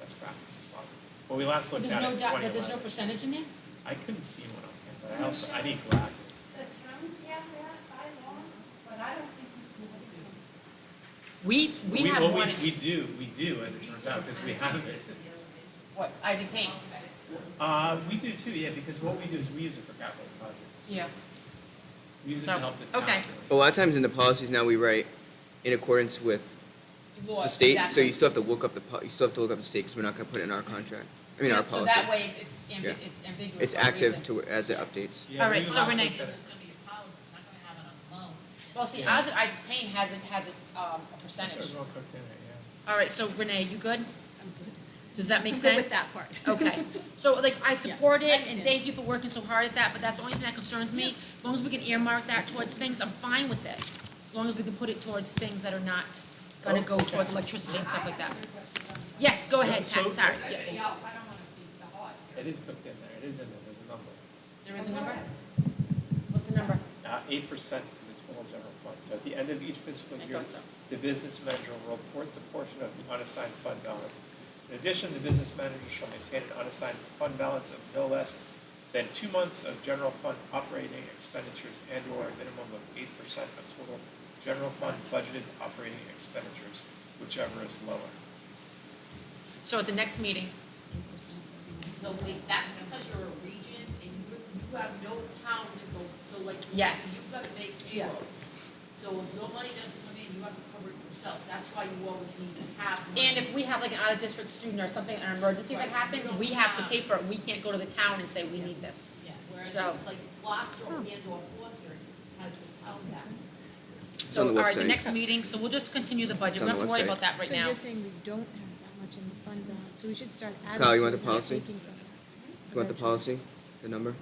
best practices probably. When we last But looked there's at it no in dot, twenty but there's no eleven, percentage in there? I couldn't see one on campus, I also, I need glasses. The towns have that by law, but I don't think the schools do. We, we have well, one, We do, we do, as it turns out, because we have it. what, Isaac Payne? Uh, we do too, yeah, because what we do is we use it for capital projects. Yeah. We use it to So, help the town. okay. really. A lot of times in the policies now we write in accordance with Law, the state, so exactly. you still have to look up the, po- you still have to look up the state, because we're not gonna put it in our contract, I mean, Yeah, our So policy. that way it's- it's Yeah. ambi- it's ambiguous. It's for a active reason. to, as it updates. Yeah, All right, we so last Renee- looked at it. It's gonna be a policy, it's not gonna have it on loan. Well, see, Yeah. Isaac, Isaac Payne has it, has it, um, a They're percentage. well cooked in it, All right, so Renee, you good? Does that make sense? I'm good with that part. Okay, so like, I support I it, and understand. thank you for working so hard at that, but that's the only thing that concerns me. As long as we can earmark that towards things, I'm fine with it. As long as we can put it towards things that are not gonna go towards electricity and stuff like that. Yes, go ahead, Pat, So- sorry. Everybody Yeah. else, I don't wanna be the hog yeah. It is cooked in there, it is in there, there's a number. There is a number? What's the number? Uh, eight percent of the total general fund, so at the end of each fiscal I year, thought so. the business manager will report the portion of the unassigned fund balance. In addition, the business manager shall maintain an unassigned fund balance of no less than two months of general fund operating expenditures and/or a minimum of eight percent of total general fund budgeted operating expenditures, whichever is lower. So at the next meeting, So wait, that's because you're a region and you, you have no town to go, so like, Yes. you've gotta make payroll. So if your money doesn't come in, you have to cover it yourself, that's why you always need to have money. and if we have like an out-of-district student or something, an emergency that Right. happens, we have to pay for it. We can't go to the town and say, we need this. Yeah, whereas So- like Gloucester and or Foster has the town that. on So, the all right, the website. next meeting, so we'll just continue the budget. It's We on don't have the to worry website. about that right So now. you're saying we don't have that much in the fund balance, so we should start adding to Kyle, you want the it and policy? taking from that. You want the policy, Eventually. the number?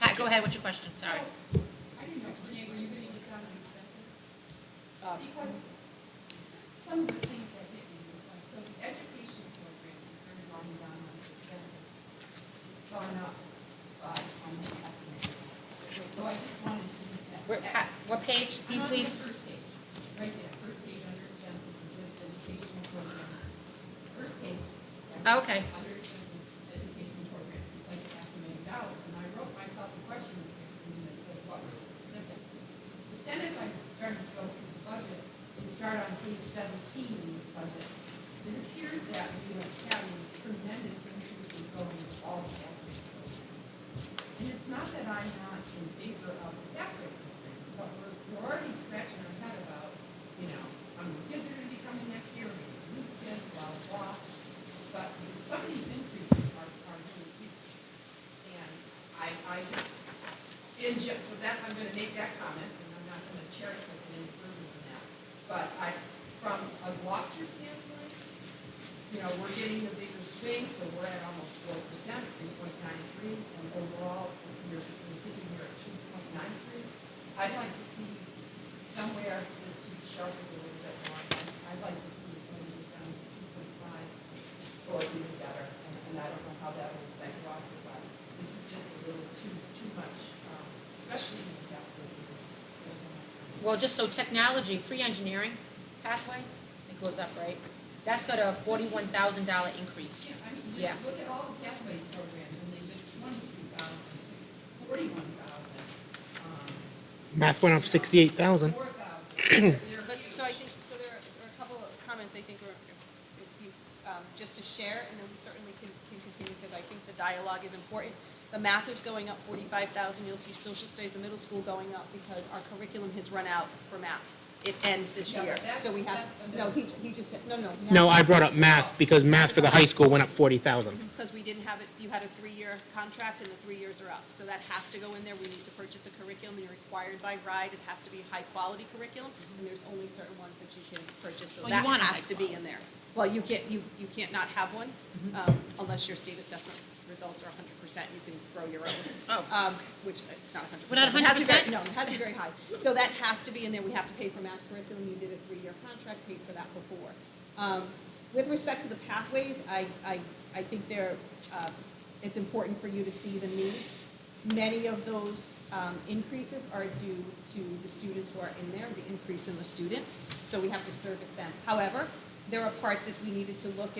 Pat, go ahead, what's your question? Sorry. I didn't know, Renee, were you gonna get down on expenses? Because just some of the things that hit me was like, so the education programs are going down on expenses. It's Gone up by almost half a million. So I just wanted to make that. Where- Pat, what page, can you I'm on the please? first page, right there, first page under expenses, it says educational program. First page. right? Oh, okay. Under expenses, education program, it's like half a million dollars, and I wrote myself a question that said, what were the specifics? But then as I started to go through the budget, you start on page seventeen in this budget, it appears that we are having tremendous increases going to all categories. And it's not that I'm not in favor of the factory program, but we're, we're already scratching our head about, you know, how many kids are gonna be coming next year, we're gonna lose kids, blah, blah, blah. But some of these increases are, are really huge. And I, I just, in ju- so that, I'm gonna make that comment, and I'm not gonna cherry pick it any further than that. But I, from a Gloucester standpoint, you know, we're getting the bigger swing, so we're at almost four percent, three point nine three, and overall, we're, we're sitting here at two point nine three. I'd like to see somewhere this to be sharpened a little bit more, and I'd like to see it maybe down to two point five or even better, and, and I don't know how that will affect Gloucester, but this is just a little too, too much, um, especially in the South Pacific. Well, just so technology, pre-engineering pathway, it goes up, right? That's got a forty-one thousand dollar increase. Yeah, I mean, Yeah. just look at all the pathways programs, and they just twenty-three thousand, forty-one thousand, um. Math went up sixty-eight thousand. Four thousand, they're But, huge. so I think, so there are are a couple of comments I think are, if you, um, just to share, and then we certainly can, can continue, because I think the dialogue is important. The math is going up forty-five thousand, you'll see social studies, the middle school going up, because our curriculum has run out for math. It ends this Yeah, but year, that's- so we have, that's the no, middle he, he just said, no, no. No, I brought up math because math for the high school went up forty thousand. Because we didn't have it, you had a three-year contract and the three years are up. So that has to go in there. We need to purchase a curriculum. You're required by RIDE. It has to be a high-quality curriculum. And there's only certain ones that you can purchase, so Well, you that want a has high to be in there. Well, you can't, you, you can't not have one um, unless your state assessment results are hundred percent. You can grow your own. Oh. Um, Which, it's not hundred percent. We're not 100%? No, it has to be very high. So that has to be in there. We have to pay for math curriculum. You did a three-year contract, paid for that before. Um, With respect to the pathways, I, I, I think they're, uh, it's important for you to see the needs. Many of those um, increases are due to the students who are in there, the increase in the students, so we have to service them. However, there are parts if we needed to look